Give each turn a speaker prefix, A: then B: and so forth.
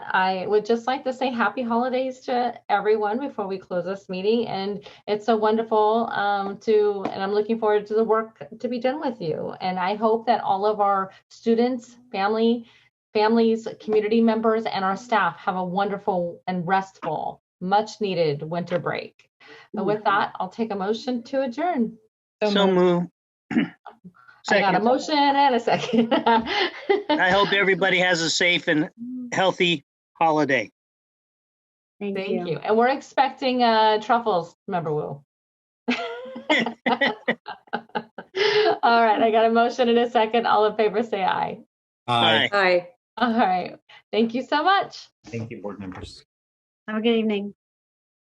A: I would just like to say happy holidays to everyone before we close this meeting. And it's so wonderful um, to, and I'm looking forward to the work to be done with you. And I hope that all of our students, family, families, community members, and our staff have a wonderful and restful, much needed winter break. And with that, I'll take a motion to adjourn.
B: So move.
A: I got a
B: Second,
A: motion and a second.
B: I hope everybody has a safe and healthy holiday.
A: Thank you. And we're expecting uh truffles, remember Will. All right, I got a motion in a second. All in favor, say aye.
C: Uh,
B: Bye.
D: Hi.
A: All right, thank you so much.
C: Thank you, board members.
D: Have a good evening.